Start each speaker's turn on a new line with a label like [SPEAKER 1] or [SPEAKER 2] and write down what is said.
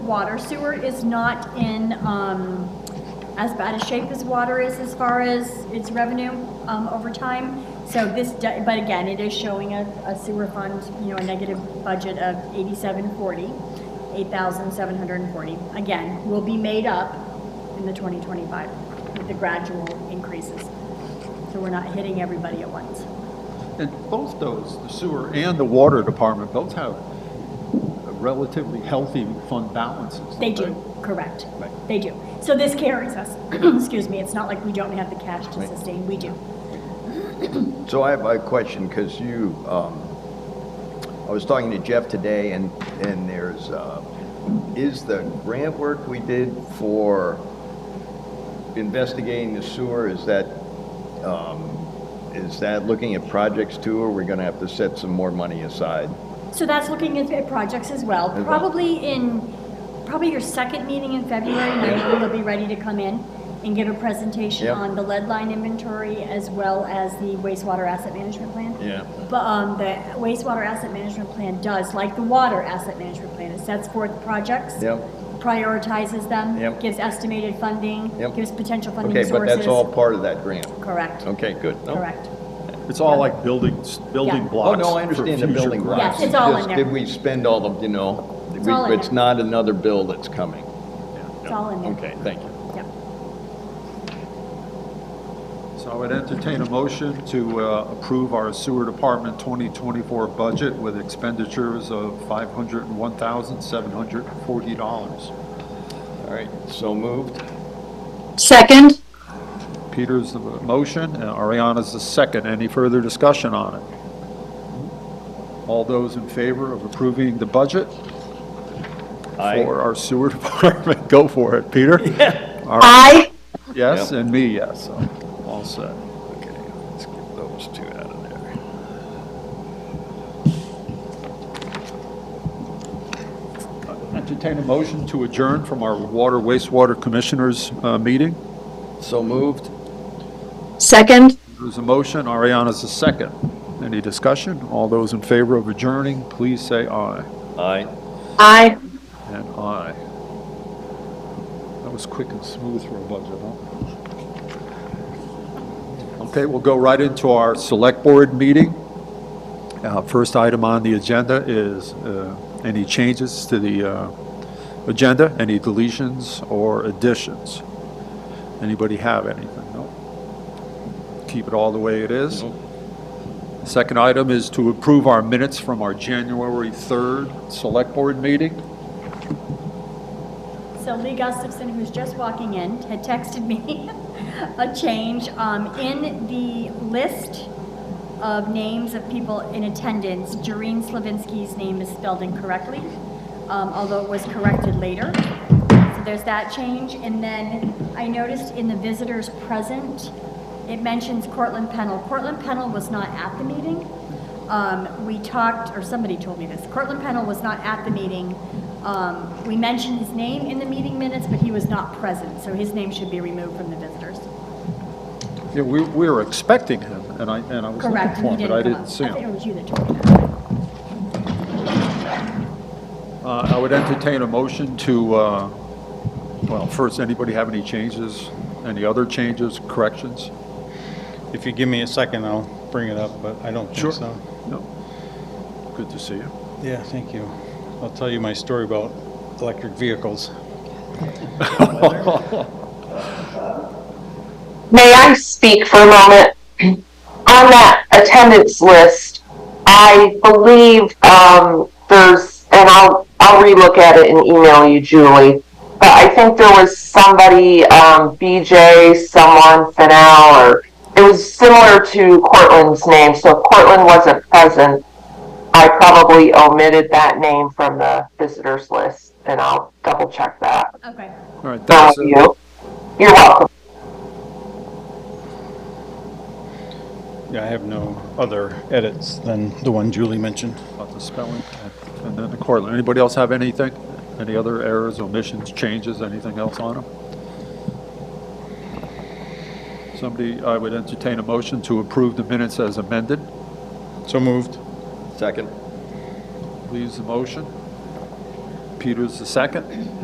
[SPEAKER 1] water. Sewer is not in um, as bad a shape as water is as far as its revenue um, over time. So this, de- but again, it is showing a a sewer fund, you know, a negative budget of 8740, 8,740. Again, will be made up in the 2025 with the gradual increases. So we're not hitting everybody at once.
[SPEAKER 2] And both those, the sewer and the water department, both have relatively healthy fund balances.
[SPEAKER 1] They
[SPEAKER 2] don't
[SPEAKER 1] do, correct.
[SPEAKER 2] Right.
[SPEAKER 1] They do. So this carries us, excuse me, it's not like we don't have the cash to
[SPEAKER 2] Right.
[SPEAKER 1] sustain, we do.
[SPEAKER 3] So I have a question, because you, um, I was talking to Jeff today, and, and there's, uh, is the grant work we did for investigating the sewer, is that, um, is that looking at projects too, or we are gonna have to set some more money aside?
[SPEAKER 1] So that's looking at, at projects as well.
[SPEAKER 3] well.
[SPEAKER 1] Probably in, probably your second meeting in February, and I will be ready to come in and give a presentation
[SPEAKER 3] Yep.
[SPEAKER 1] on the lead line inventory as well as the wastewater asset management plan.
[SPEAKER 3] Yeah.
[SPEAKER 1] But um, the wastewater asset management plan does, like the water asset management plan, it sets forth projects.
[SPEAKER 3] Yep.
[SPEAKER 1] Prioritizes them.
[SPEAKER 3] Yep.
[SPEAKER 1] Gives estimated funding.
[SPEAKER 3] Yep.
[SPEAKER 1] Gives potential funding
[SPEAKER 3] Okay,
[SPEAKER 1] sources.
[SPEAKER 3] but that's all part of that grant?
[SPEAKER 1] Correct,
[SPEAKER 3] Okay, good. No?
[SPEAKER 1] correct.
[SPEAKER 4] It's all like building, building
[SPEAKER 1] Yeah.
[SPEAKER 3] Oh,
[SPEAKER 4] blocks.
[SPEAKER 3] no, I
[SPEAKER 4] for
[SPEAKER 3] understand the
[SPEAKER 4] future
[SPEAKER 3] building
[SPEAKER 4] growth.
[SPEAKER 1] Yes,
[SPEAKER 3] blocks.
[SPEAKER 1] it's all in
[SPEAKER 3] Just
[SPEAKER 1] there.
[SPEAKER 3] Did we spend all of, you know?
[SPEAKER 1] It's
[SPEAKER 3] we-
[SPEAKER 1] all in
[SPEAKER 3] It's
[SPEAKER 1] there.
[SPEAKER 3] not another bill that's coming.
[SPEAKER 1] It's all in there.
[SPEAKER 3] Okay, thank you.
[SPEAKER 1] Yep.
[SPEAKER 2] So I would entertain a motion to uh, approve our sewer department 2024 budget with expenditures of $501,740.
[SPEAKER 3] All right, so moved.
[SPEAKER 5] Second,
[SPEAKER 2] Peter's the motion, and Ariana's the second. Any further discussion on it? All those in favor of approving the budget
[SPEAKER 3] Aye.
[SPEAKER 2] for our sewer department, go for it, Peter?
[SPEAKER 5] aye.
[SPEAKER 2] Yes,
[SPEAKER 3] Yeah.
[SPEAKER 2] and me, yes, so, all set.
[SPEAKER 3] Okay, let's get those two out of there.
[SPEAKER 2] Entertain a motion to adjourn from our Water Wastewater Commissioners uh, meeting.
[SPEAKER 3] So moved.
[SPEAKER 5] Second,
[SPEAKER 2] There's a motion, Ariana's a second. Any discussion? All those in favor of adjourning, please say aye.
[SPEAKER 3] Aye.
[SPEAKER 5] aye.
[SPEAKER 2] And aye. That was quick and smooth for a budget, huh? Okay, we'll go right into our Select Board meeting. Uh, First item on the agenda is uh, any changes to the uh, agenda, any deletions or additions? Anybody have anything? No? Keep it all the way it is? Second item is to approve our minutes from our January 3rd Select Board meeting.
[SPEAKER 1] So Lee Gustafson, who's just walking in, had texted me a change um, in the list of names of people in attendance. Jareen Slavinsky's name is spelled incorrectly, um, although it was corrected later. So there's that change. And then I noticed in the visitors present, it mentions Cortland Pennell. Cortland Pennell was not at the meeting. Um, we talked, or somebody told me this, Cortland Pennell was not at the meeting. Um, we mentioned his name in the meeting minutes, but he was not present, so his name should be removed from the visitors.
[SPEAKER 2] Yeah, we, we were expecting him, and I, and I was looking
[SPEAKER 1] Correct,
[SPEAKER 2] for
[SPEAKER 1] and he
[SPEAKER 2] him, but I
[SPEAKER 1] didn't come up.
[SPEAKER 2] didn't see
[SPEAKER 1] I think it
[SPEAKER 2] him.
[SPEAKER 1] was you that told me that.
[SPEAKER 2] Uh, I would entertain a motion to, uh, well, first, anybody have any changes, any other changes, corrections?
[SPEAKER 6] If you give me a second, I'll bring it up, but I don't think so.
[SPEAKER 2] No? Good to see you.
[SPEAKER 6] Yeah, thank you. I'll tell you my story about electric vehicles.
[SPEAKER 7] May I speak for a moment? On that attendance list, I believe um, there's, and I'll, I'll relook at it and email you, Julie. But I think there was somebody, um, BJ, someone, Fennell, or it was similar to Cortland's name. So if Cortland wasn't present, I probably omitted that name from the visitors list, and I'll double check that.
[SPEAKER 1] Okay.
[SPEAKER 2] All right,
[SPEAKER 7] Thank
[SPEAKER 2] that's it.
[SPEAKER 7] you. You're welcome.
[SPEAKER 6] Yeah, I have no other edits than the one Julie mentioned.
[SPEAKER 2] About the spelling, and then the Cortland. Anybody else have anything? Any other errors, omissions, changes, anything else on them? Somebody, I would entertain a motion to approve the minutes as amended.
[SPEAKER 6] So moved.
[SPEAKER 3] Second.
[SPEAKER 2] Leaves the motion. Peter's the second.